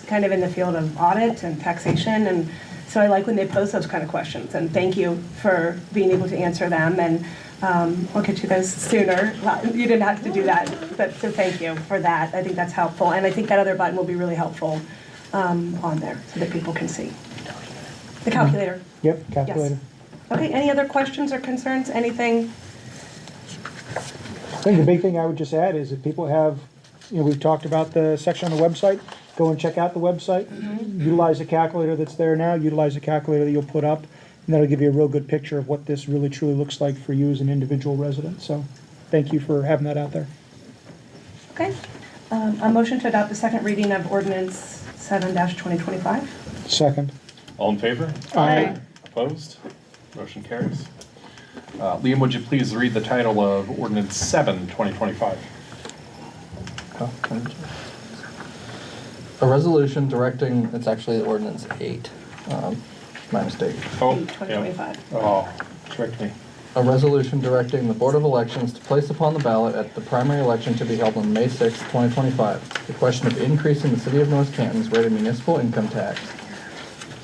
kind of in the field of audit and taxation, and so I like when they pose those kind of questions, and thank you for being able to answer them, and um, we'll get you those sooner. Well, You didn't have to do that, but, so thank you for that. I think that's helpful, and I think that other button will be really helpful um, on there, so that people can see. The calculator. Yep, Yes. calculator. Okay, any other questions or concerns, anything? I think the big thing I would just add is if people have, you know, we've talked about the section on the website, go and check out the website. Utilize the calculator that's there now, utilize the calculator that you'll put up, and that'll give you a real good picture of what this really truly looks like for you as an individual resident. So, thank you for having that out there. Okay. Um, A motion to adopt the second reading of ordinance 7-2025. Second. All in favor? Aye. Opposed? Motion carries. Uh, Liam, would you please read the title of ordinance 7, 2025? A resolution directing, it's actually ordinance eight, um, my mistake. Oh, Eight, 2025. yeah. Oh, correct me. A resolution directing the Board of Elections to place upon the ballot at the primary election to be held on May sixth, twenty twenty-five, the question of increasing the city of North Canton's rate of municipal income tax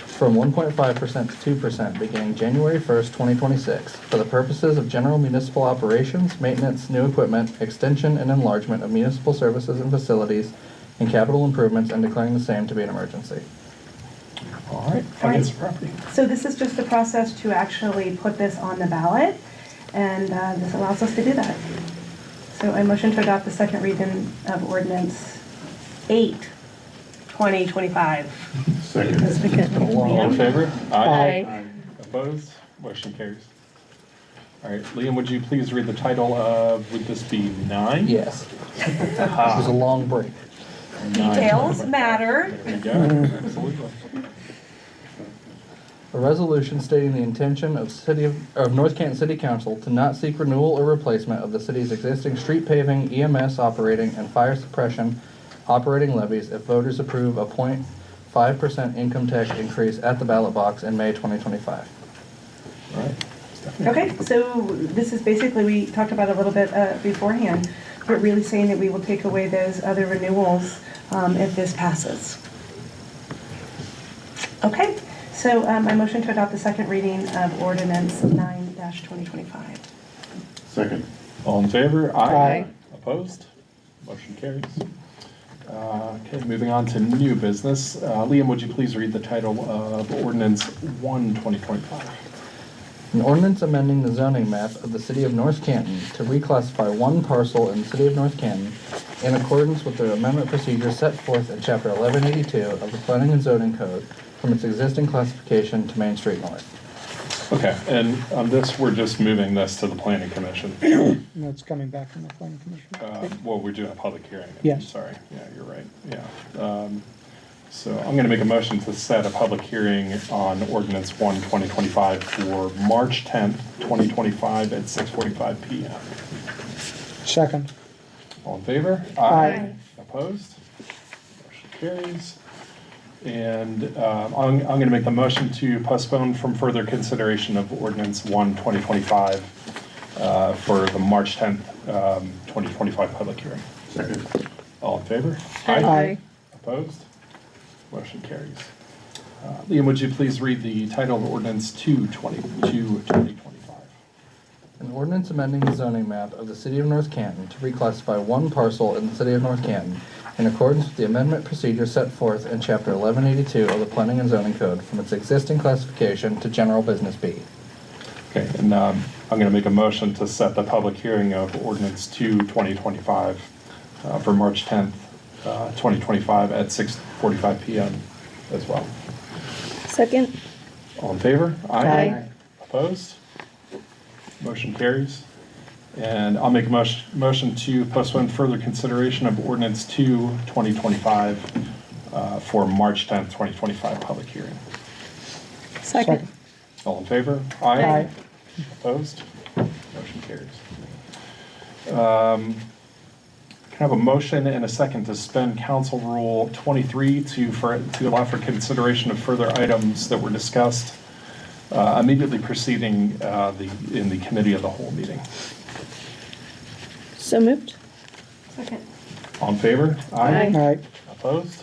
from one point five percent to two percent beginning January first, twenty twenty-six, for the purposes of general municipal operations, maintenance, new equipment, extension and enlargement of municipal services and facilities, and capital improvements, and declaring the same to be an emergency. All right, finance and property. So this is just the process to actually put this on the ballot, and uh, this allows us to do that. So I motion to adopt the second reading of ordinance 8, 2025. Second. All in favor? Aye. Opposed? Motion carries. All right, Liam, would you please read the title of, would this be 9? Yes. This is a long break. Nine. Details matter. There we go, absolutely. A resolution stating the intention of city of, of North Canton City Council to not seek renewal or replacement of the city's existing street paving, EMS operating, and fire suppression operating levies if voters approve a 0.5 percent income tax increase at the ballot box in May twenty twenty-five. All right. Okay, so this is basically, we talked about it a little bit uh, beforehand, but really saying that we will take away those other renewals um, if this passes. Okay, so um, I motion to adopt the second reading of ordinance nine twenty twenty-five. Second. All in favor? Aye. Opposed? Motion carries. Uh, Okay, moving on to new business. Uh, Liam, would you please read the title of ordinance 1, 2025? An ordinance amending the zoning map of the city of North Canton to reclassify one parcel in the city of North Canton in accordance with the amendment procedure set forth in chapter eleven eighty-two of the planning and zoning code from its existing classification to Main Street North. Okay, and on this, we're just moving this to the planning commission. And that's coming back from the planning Uh, commission. Well, we're doing a public hearing. I'm Yes. Sorry, yeah, you're right, yeah. Um, So I'm going to make a motion to set a public hearing on ordinance 1, 2025 for March 10th, 2025 at 6:45 PM. Second. All in favor? Aye. Opposed? Motion carries. And um, I'm going to make the motion to postpone from further consideration of ordinance 1, 2025 uh, for the March 10th, um, 2025 public hearing. Second. All in favor? Aye. Opposed? Motion carries. Uh, Liam, would you please read the title of ordinance 2, 2025? An ordinance amending the zoning map of the city of North Canton to reclassify one parcel in the city of North Canton in accordance with the amendment procedure set forth in chapter eleven eighty-two of the planning and zoning code from its existing classification to general business B. Okay, and um, I'm going to make a motion to set the public hearing of ordinance 2, 2025 uh, for March 10th, uh, 2025 at 6:45 PM as well. Second? All in favor? Aye. Opposed? Motion carries. And I'll make a motion, motion to postpone further consideration of ordinance 2, 2025 uh, for March 10th, 2025 public hearing. Second. All in favor? Aye. Opposed? Motion carries. Um, Can I have a motion and a second to suspend Council Rule 23 to, for, to allow for consideration of further items that were discussed uh, immediately preceding uh, the, in the committee of the whole meeting? So moved? Second. All in favor? All Aye. right. Opposed?